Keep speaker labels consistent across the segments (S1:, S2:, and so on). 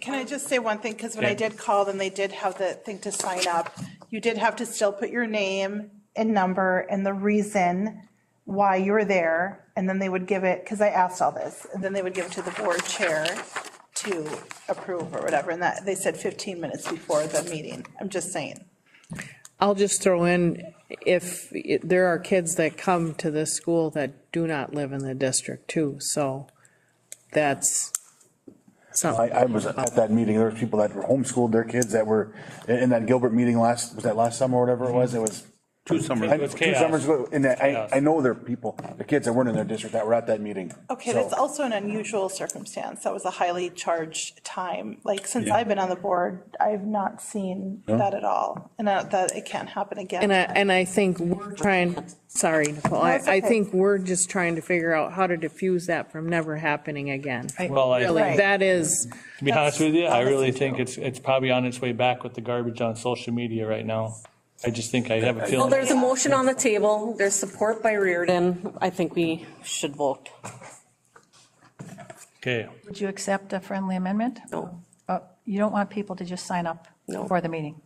S1: Can I just say one thing? Because when I
S2: Yeah.
S1: did call them, they did have the thing to sign up. You did have to still put your name and number and the reason why you were there. And then they would give it, because I asked all this, and then they would give it to the board chair to approve or whatever. And that, they said 15 minutes before the meeting. I'm just saying.
S3: I'll just throw in, if, it- there are kids that come to this school that do not live in the district too, so that's
S4: I,
S3: something.
S4: I was at that meeting, there were people that were homeschooled their kids that were, in, in that Gilbert meeting last, was that last summer or whatever it was, it was.
S2: Two summers.
S4: I-
S2: It was
S4: Two
S2: chaos.
S4: summers ago, and I,
S2: Chaos.
S4: I know there are people, the kids that weren't in their district that were at that meeting.
S1: Okay,
S4: So,
S1: that's also an unusual circumstance. That was a highly charged time. Like, since I've been on the board, I've not seen that at all. And uh, that it can't happen again.
S3: And I, and I think we're trying, sorry, Nicole, I,
S1: it's
S3: I
S1: okay.
S3: think we're just trying to figure out how to diffuse that from never happening again.
S2: Well, I-
S3: Really,
S1: Right.
S3: that is,
S2: To be honest with you, I
S1: That's-
S2: really think it's, it's probably on its way back with the garbage on social media right now. I just think I have a
S5: Well,
S2: feeling.
S5: there's a motion on the table. There's support by Reardon. I think we should vote.
S2: Okay,
S6: Would you accept a friendly amendment?
S5: No,
S6: Uh, You don't want people to just sign up
S5: No.
S6: for the meeting.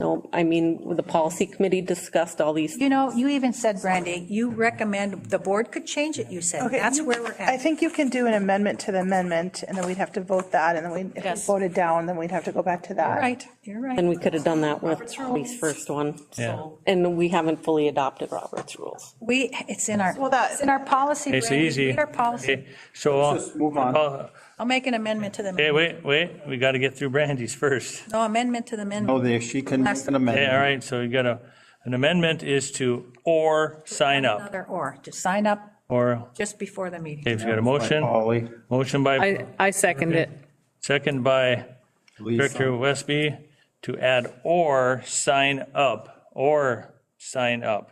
S5: no, I mean, the policy committee discussed all these.
S6: You know, you even said, Brandy, you recommend, the board could change it, you said.
S1: Okay,
S6: That's
S1: you-
S6: where we're
S1: I
S6: at.
S1: think you can do an amendment to the amendment, and then we'd have to vote that, and then we, if we
S5: Yes.
S1: voted down, then we'd have to go back to
S6: You're
S1: that.
S6: right, you're
S5: And
S6: right.
S5: we could have done that with Holly's first one.
S2: Yeah.
S5: So, and we haven't fully adopted Robert's rules.
S6: We, it's in our,
S1: Well, that-
S6: it's in our policy.
S2: it's
S6: Brandy.
S2: easy.
S6: It's Our policy.
S2: Okay, So.
S7: Let's just move on.
S2: Uh,
S6: I'll make an amendment to the,
S2: Hey, wait, wait, we got to get through Brandy's first.
S6: no amendment to the
S7: No,
S6: amendment.
S7: they, she can make an
S2: Okay, all
S7: amendment.
S2: right, so we got a, an amendment is to or sign up,
S6: Another or, just sign up
S2: or,
S6: just before the meeting.
S2: okay, we got a motion,
S7: Polly,
S2: motion by,
S3: I, I second it.
S2: second by Director
S7: Lisa,
S2: Westby to add or sign up, or sign up.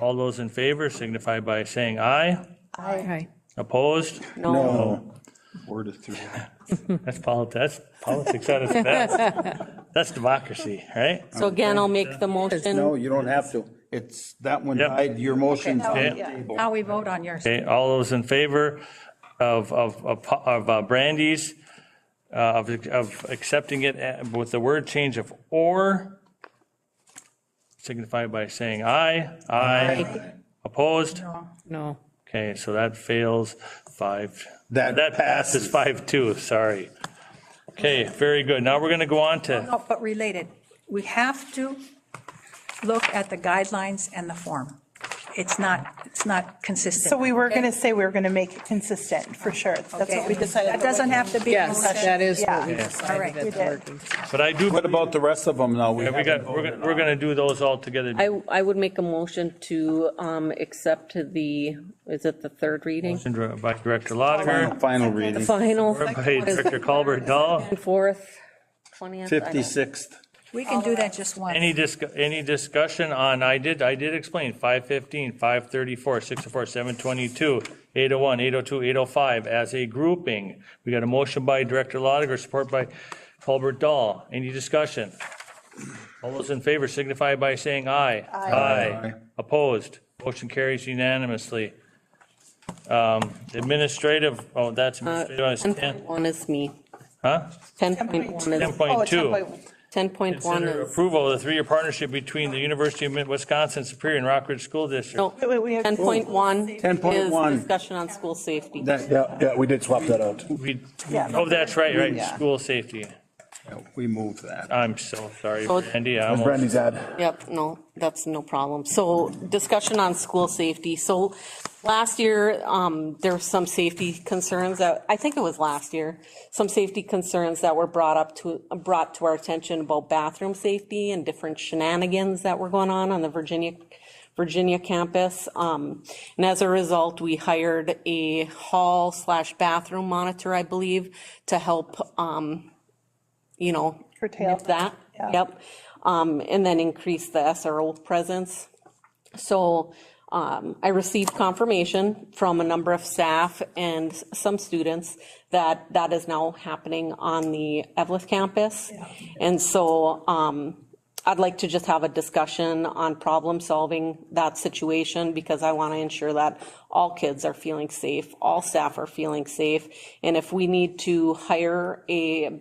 S2: All those in favor signify by saying aye.
S3: Aye.
S2: Opposed?
S5: No,
S7: four to three.
S2: That's politics, that's politics at its best. That's democracy, right?
S5: so again, I'll make the
S7: No,
S5: motion.
S7: you don't have to. It's, that one
S2: Yep.
S7: died, your motion's on the
S2: Okay.
S7: table.
S6: How we vote on yours.
S2: Okay, all those in favor of, of, of- of uh, Brandy's, uh, of, of accepting it uh, with the word change of or, signify by saying aye. Aye. Opposed?
S3: No,
S2: Okay, so that fails five.
S7: That
S2: passes five two, sorry. Okay, very good. Now we're going to go on to,
S6: No, but related, we have to look at the guidelines and the form. It's not, it's not consistent.
S1: So we were going to say we were going to make it consistent, for sure. That's
S6: Okay.
S1: what we decided.
S6: That doesn't have to be. a
S3: yes,
S6: motion.
S3: that is what we
S1: Yeah.
S6: All right.
S3: decided at the
S1: did.
S3: working.
S2: but I do,
S7: What about the rest of them now? We
S2: we got,
S7: haven't
S2: we're
S7: voted
S2: going, we're going to do those all together.
S5: I, I would make a motion to um, accept the, is it the third reading?
S2: Motion By Director
S7: on.
S2: Lotiger,
S7: Final reading,
S5: Final,
S2: by Director Colbert Dahl.
S5: fourth, 20th. I don't-
S7: 56th.
S6: We can do that just once.
S2: Any disc, any discussion on, I did, I did explain, 515, 534, 604, 722, 801, 802, 805, as a grouping. We got a motion by Director Lotiger, support by Colbert Dahl. Any discussion? All those in favor signify by saying aye. Aye. Opposed? Motion carries unanimously. Um, Administrative, oh,
S5: Uh,
S2: that's administrative,
S5: 10.1 is me.
S2: Huh?
S5: 10.1 is,
S1: Oh,
S2: 10.2.
S5: 10.1
S2: Consider
S5: is,
S2: approval of the three-year partnership between the University of Wisconsin Superior and Rockridge School District.
S5: no,
S1: Wait, wait, we have-
S5: 10.1
S7: 10.1.
S5: is discussion on school safety.
S7: That,
S4: Yeah, yeah, we did swap that out.
S2: We, oh, that's right, right,
S1: Yeah.
S2: school safety.
S7: we moved that.
S2: I'm so sorry,
S5: So-
S2: Brandy. I
S4: That's
S2: almost-
S4: Brandy's ad.
S5: Yep, no, that's no problem. So discussion on school safety. So last year, um, there were some safety concerns that, I think it was last year, some safety concerns that were brought up to, brought to our attention about bathroom safety and different shenanigans that were going on on the Virginia, Virginia campus. Um, and as a result, we hired a hall slash bathroom monitor, I believe, to help, um, you know,
S1: Curtail
S5: nip that. Yep. Um, and then increase the SRO presence. So, um, I received confirmation from a number of staff and some students that that is now happening on the Evlith campus. And so, um, I'd like to just have a discussion on problem solving that situation because I want to ensure that all kids are feeling safe, all staff are feeling safe. And if we need to hire a